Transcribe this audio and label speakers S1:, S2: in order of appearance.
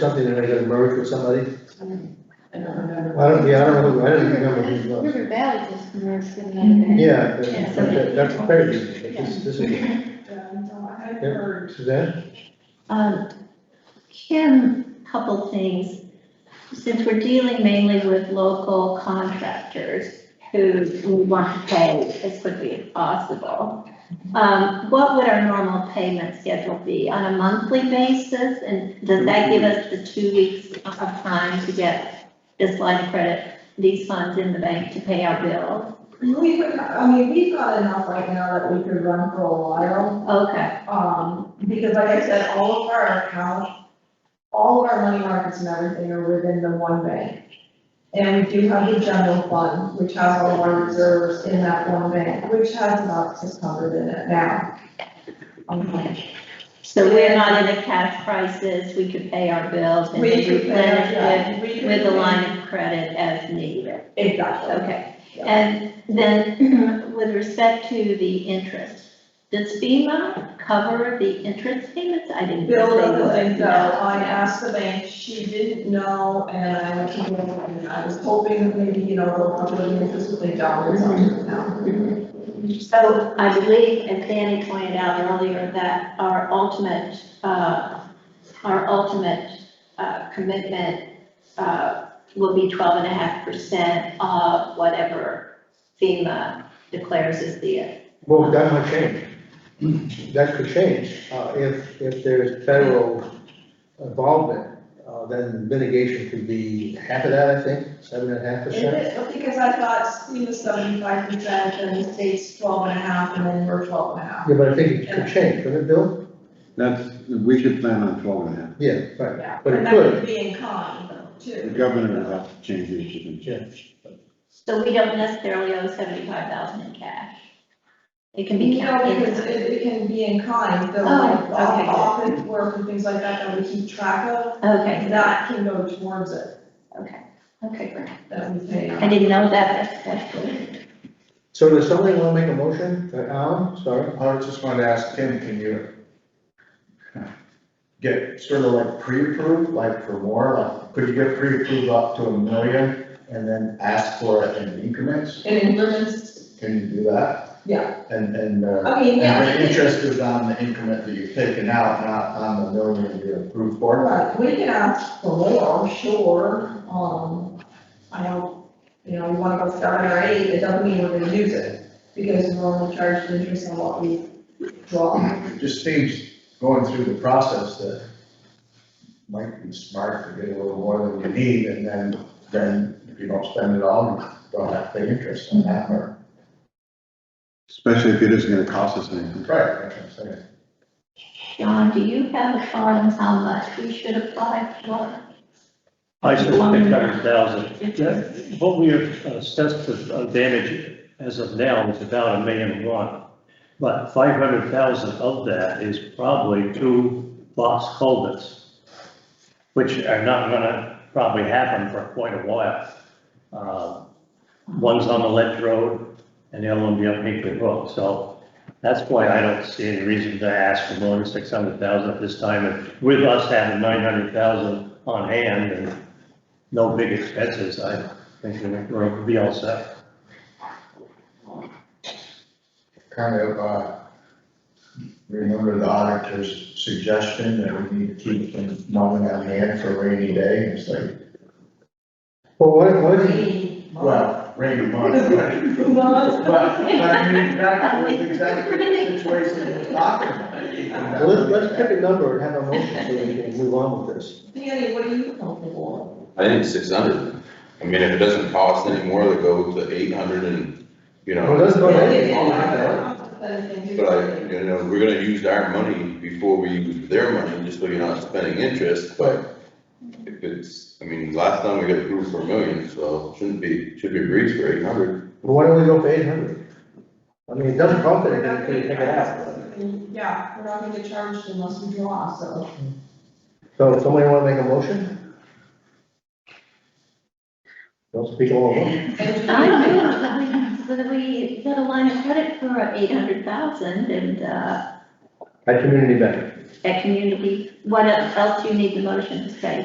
S1: something and I got merged with somebody.
S2: I don't remember.
S1: I don't, yeah, I don't know, I don't remember who it was.
S3: River Valley just merged with another. bank.
S1: Yeah, that- that- that's crazy, but this, this is,
S2: I
S1: Yeah.
S2: heard
S1: Suzanne?
S4: Um, Kim, couple things. Since we're dealing mainly with local contractors who we want to pay as quickly as possible, um, what would our normal payment schedule be on a monthly basis? And does that give us the two weeks of time to get this line of credit, these funds in the bank to pay our bills?
S2: We would, I mean, we've got enough right now that we could run for a while,
S4: Okay,
S2: um, because like I said, all of our accounts, all of our money markets and everything are within the one bank. And we do have the general fund, which has all of our reserves in that one bank, which has about six hundred in it now. Um,
S4: so we're not in a cash crisis, we could pay our bills and
S2: We could,
S4: replenish it
S2: yeah, we could.
S4: with the line of credit as needed.
S2: Exactly.
S4: Okay, and then with respect to the interest, does FEMA cover the interest payments? I didn't. think
S2: Bill
S4: they would.
S2: doesn't think so,
S4: No.
S2: I asked the bank, she didn't know, and I went to Bill, and I was hoping maybe, you know, they'll come to the office with a dollar or something now.
S4: So I believe, as Danny pointed out earlier, that our ultimate, uh, our ultimate, uh, commitment, uh, will be twelve and a half percent of whatever FEMA declares is the,
S1: Well, that might change. That could change, uh, if, if there's federal involvement, uh, then mitigation could be half of that, I think, seven and a half
S2: Is
S1: percent.
S2: it, because I thought we was seventy-five percent, and the state's twelve and a half, and then we're twelve and a half.
S1: Yeah, but I think it could change, couldn't it, Bill?
S5: That's, we should plan on twelve and a half.
S1: Yeah, right,
S2: Yeah,
S1: But it
S2: and that
S1: could.
S2: would be in kind, though,
S5: The
S2: too.
S5: governor will have to change the issue.
S1: yeah.
S4: so we don't necessarily owe seventy-five thousand in cash. It can be
S2: You know,
S4: counted.
S2: because it, it can be in kind, though,
S4: Oh,
S2: like,
S4: okay, good.
S2: office work and things like that, that we keep track of,
S4: Okay,
S2: that can go towards it,
S4: okay, great.
S2: that we pay.
S4: I didn't know that, that's, that's good.
S1: So does somebody wanna make a motion, Uh, Alan, sorry?
S6: I just wanted to ask Kim, can you get sort of like pre-approved, like for more, like, could you get pre-approved up to a million and then ask for it in increments?
S2: And increments,
S6: Can you do that?
S2: Yeah.
S6: And, and, uh,
S2: I mean, yeah.
S6: and the interest is on the increment that you've taken out, not on the million you approved for.
S2: Right, we can ask for more, sure, um, I know, you know, we wanna go seven or eight, it doesn't mean we're gonna use it, because we're only charged interest on what we draw.
S6: It just seems going through the process that might be smart to get a little more than you need and then, then if you don't spend it all, you don't have to pay interest on that or.
S5: Especially if it isn't gonna cost us anything.
S6: Right, that's what I'm saying.
S4: John, do you have a thought on how much we should apply for?
S7: I said six hundred thousand. What we have assessed of damage as of now is about a million one. But five hundred thousand of that is probably two box culverts, which are not gonna probably happen for quite a while. Uh, One's on the ledge road and the other one be up Hinkley Hook. So that's why I don't see any reason to ask for more than six hundred thousand at this time. And With us having nine hundred thousand on hand and no big expenses, I think we're, we'll be all set.
S6: Kind of, uh, remember the auditor's suggestion that we need to keep the money on hand for rainy day, it's like,
S1: Well, what, what, is-
S6: well, rainy month, but, but I mean, that was exactly the situation we we're talking
S1: well,
S6: about.
S1: let's, let's pick a number and have a motion so we can move on with this.
S2: Danny, what are you comfortable
S8: I think six hundred. I mean, if it doesn't cost anymore to go to eight hundred and, you
S1: Well,
S8: know,
S1: let's go
S2: with?
S1: ahead.
S8: but I, you know, we're gonna use our money before we use their money, just so you're not spending interest, but if it's, I mean, last time we got approved for a million, so shouldn't be, should be agreed for eight hundred.
S1: Well, Why don't we go for eight hundred? I mean, it doesn't cost anything until you take it out.
S2: Yeah, we're not gonna get charged unless we draw, so.
S1: So somebody wanna make a motion? Don't speak all of them.
S4: I do, but we, but we got a line of credit for eight hundred thousand and, uh,
S1: At community bank.
S4: at community, what else do you need the motion to say?